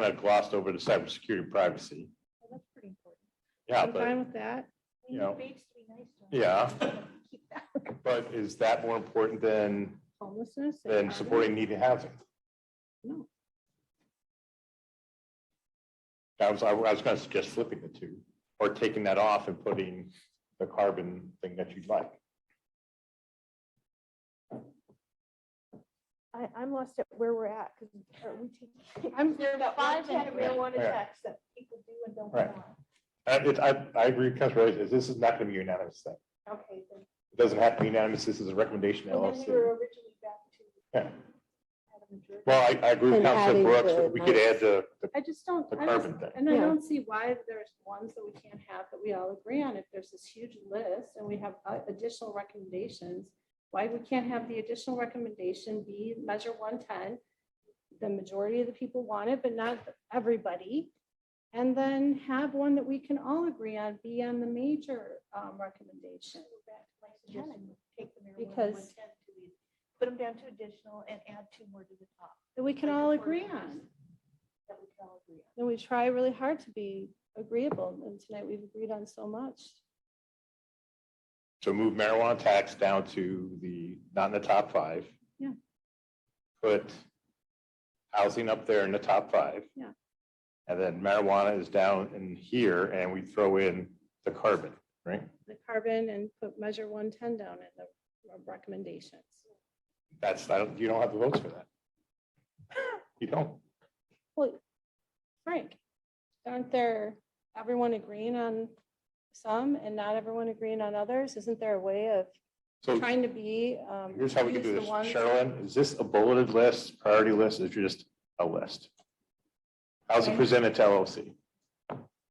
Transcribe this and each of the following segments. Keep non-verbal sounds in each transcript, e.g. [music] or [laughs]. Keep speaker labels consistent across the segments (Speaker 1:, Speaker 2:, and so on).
Speaker 1: kind of glossed over the cybersecurity privacy.
Speaker 2: Well, That's pretty important.
Speaker 1: Yeah,
Speaker 2: I'm fine
Speaker 1: but,
Speaker 2: with that.
Speaker 1: you know,
Speaker 3: Beach to be nice to them.
Speaker 1: yeah,
Speaker 3: Keep [laughs] that
Speaker 1: but is that more important than,
Speaker 2: Homelessness. and
Speaker 1: than
Speaker 2: poverty?
Speaker 1: supporting needed housing?
Speaker 2: No.
Speaker 1: I was, I was gonna suggest flipping the two, or taking that off and putting the carbon thing that you'd like.
Speaker 3: I, I'm lost at where we're at, because are we
Speaker 2: [laughs]
Speaker 3: taking?
Speaker 2: I'm-
Speaker 3: There's that one
Speaker 2: Five and-
Speaker 3: category of one
Speaker 1: Yeah.
Speaker 3: attacks that people do and don't
Speaker 1: Right.
Speaker 3: want.
Speaker 1: I, it- I, I agree with Councilor Reyes, this is not gonna be unanimous thing.
Speaker 3: Okay, then,
Speaker 1: It doesn't have to be unanimous, this is a recommendation. to
Speaker 3: and then we
Speaker 1: LLC.
Speaker 3: were originally back to.
Speaker 1: Yeah.
Speaker 3: Had a majority.
Speaker 1: Well, I, I agree with
Speaker 4: And
Speaker 1: Councilor
Speaker 4: adding
Speaker 1: Brooks,
Speaker 4: the
Speaker 1: that we could add the, the-
Speaker 2: I just don't,
Speaker 1: the
Speaker 2: I just-
Speaker 1: carbon thing.
Speaker 2: and I
Speaker 4: Yeah.
Speaker 2: don't see why there's ones that we can't have that we all agree on. If there's this huge list and we have uh, additional recommendations, why we can't have the additional recommendation be measure one ten? The majority of the people want it, but not everybody. And then have one that we can all agree on, be on the major um, recommendation.
Speaker 3: Go back to my suggestion, Take the marijuana 110
Speaker 2: Because-
Speaker 3: to the- Put them down to additional and add two more to the top.
Speaker 2: that we can
Speaker 3: Like a
Speaker 2: all
Speaker 3: four
Speaker 2: agree
Speaker 3: times.
Speaker 2: on.
Speaker 3: That we can all agree on.
Speaker 2: And we try really hard to be agreeable, and tonight we've agreed on so much.
Speaker 1: So move marijuana tax down to the, not in the top five.
Speaker 2: Yeah.
Speaker 1: Put housing up there in the top five.
Speaker 2: Yeah.
Speaker 1: And then marijuana is down in here and we throw in the carbon, right?
Speaker 2: The carbon and put measure one ten down in the recommendations.
Speaker 1: That's, I don't, you don't have the votes for
Speaker 2: [laughs]
Speaker 1: that. You don't.
Speaker 2: Well, Frank, aren't there, everyone agreeing on some and not everyone agreeing on others? Isn't there a way of
Speaker 1: So
Speaker 2: trying to be? um,
Speaker 1: here's how we can do
Speaker 2: use the
Speaker 1: this.
Speaker 2: ones-
Speaker 1: Sherilyn, is this a bulleted list, priority list, or is it just a list? How's it
Speaker 5: Okay.
Speaker 1: presented to LLC?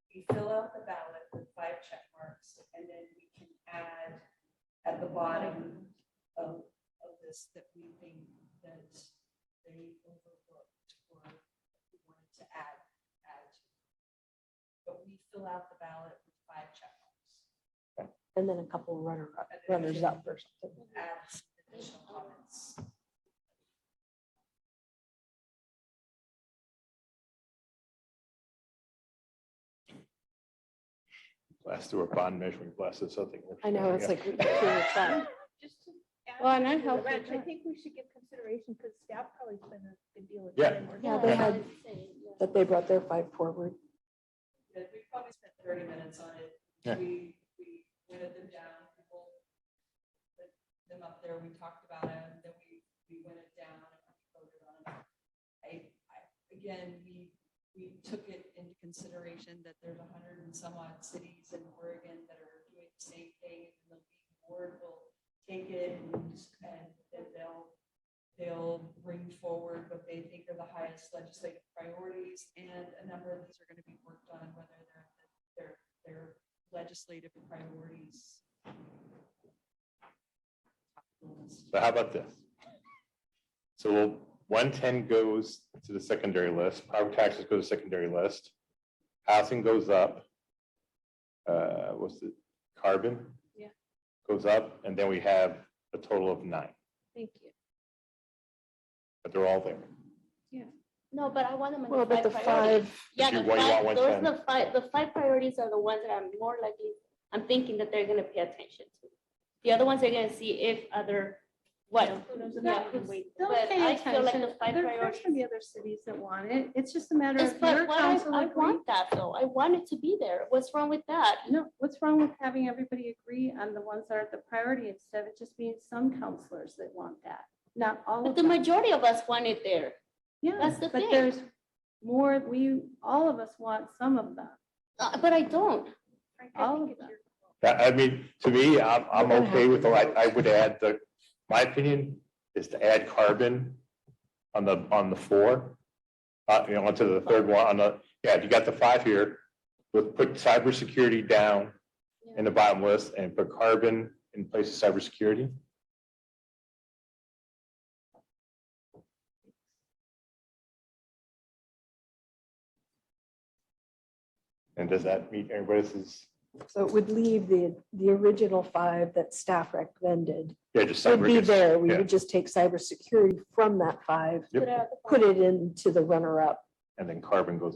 Speaker 5: we fill out the ballot with five check marks, and then we can add at the bottom of, of this that we think that they overlooked or we wanted to add, add. to. But we fill out the ballot with five check marks.
Speaker 4: And then a couple runner up,
Speaker 5: and then
Speaker 4: runners up or something.
Speaker 5: Add some additional comments.
Speaker 1: Blast through a bond measuring glasses, something.
Speaker 4: I know, it's like. we can't do that.
Speaker 3: Just to add
Speaker 2: Well, and
Speaker 3: to
Speaker 2: I
Speaker 3: the
Speaker 2: help with
Speaker 3: rent, I
Speaker 2: that.
Speaker 3: think we should give consideration because staff probably spent a good deal of
Speaker 1: Yeah.
Speaker 3: time. working
Speaker 4: [laughs] Yeah,
Speaker 3: on
Speaker 4: they
Speaker 3: it.
Speaker 4: had- That they brought their five forward.
Speaker 5: that we probably spent thirty minutes on it.
Speaker 1: Yeah.
Speaker 5: We, we whittled them down, people put them up there, we talked about it, and then we, we went it down and voted on it. I, I, again, we, we took it into consideration that there's a hundred and some odd cities in Oregon that are doing the same thing. and The league board will take it and, and then they'll, they'll bring forward what they think are the highest legislative priorities, and a number of these are gonna be worked on, whether they're, they're, they're legislative priorities.
Speaker 1: So how about this? So one ten goes to the secondary list, property taxes go to the secondary list, housing goes up. Uh, what's the carbon?
Speaker 2: Yeah.
Speaker 1: Goes up, and then we have a total of nine,
Speaker 2: Thank you.
Speaker 1: but they're all there.
Speaker 6: No, but I want them. in
Speaker 4: Well, but the
Speaker 6: priorities.
Speaker 4: five,
Speaker 6: Yeah,
Speaker 1: You-
Speaker 6: the
Speaker 1: why you want
Speaker 6: five,
Speaker 1: one
Speaker 6: those are
Speaker 1: ten?
Speaker 6: the five, the five priorities are the ones that I'm more likely, I'm thinking that they're gonna pay attention to. The other ones, they're gonna see if other, what,
Speaker 2: Yeah,
Speaker 6: Yeah,
Speaker 2: but
Speaker 6: wait,
Speaker 2: still
Speaker 6: but
Speaker 2: pay
Speaker 6: I feel like
Speaker 2: attention.
Speaker 6: the five
Speaker 2: There are
Speaker 6: priorities-
Speaker 2: gonna be other cities that want it. It's just a matter
Speaker 6: Yes,
Speaker 2: of your
Speaker 6: but what I,
Speaker 2: council
Speaker 6: I
Speaker 2: agree.
Speaker 6: want that though. I want it to be there. What's wrong with that?
Speaker 2: No, what's wrong with having everybody agree on the ones that are the priority instead of it just being some counselors that want that? Not all
Speaker 6: But
Speaker 2: of
Speaker 6: the
Speaker 2: them.
Speaker 6: majority of us want it there.
Speaker 2: Yeah,
Speaker 6: that's the
Speaker 2: but
Speaker 6: thing.
Speaker 2: there's more, we, all of us want some of them.
Speaker 6: Uh, but I don't.
Speaker 3: Frank,
Speaker 2: all
Speaker 3: I
Speaker 2: of
Speaker 3: think it's
Speaker 2: them.
Speaker 3: your
Speaker 1: That, I mean, to me, I'm, I'm
Speaker 4: We're gonna
Speaker 1: okay
Speaker 4: have
Speaker 1: with,
Speaker 4: to
Speaker 1: the- I,
Speaker 4: vote.
Speaker 1: I would add the, my opinion is to add carbon on the, on the four. Uh, you know, onto the third one, on the, yeah, you got the five here, but put cybersecurity down in the bottom list and put carbon in place of cybersecurity. And does that meet everybody's,
Speaker 4: so it would leave the, the original five that staff recommended
Speaker 1: yeah, just.
Speaker 4: would be
Speaker 1: cyber-
Speaker 4: there. We
Speaker 1: yeah.
Speaker 4: would just take cybersecurity from that five,
Speaker 1: Yep.
Speaker 6: Put it at the
Speaker 4: put it into the runner up
Speaker 1: and then carbon goes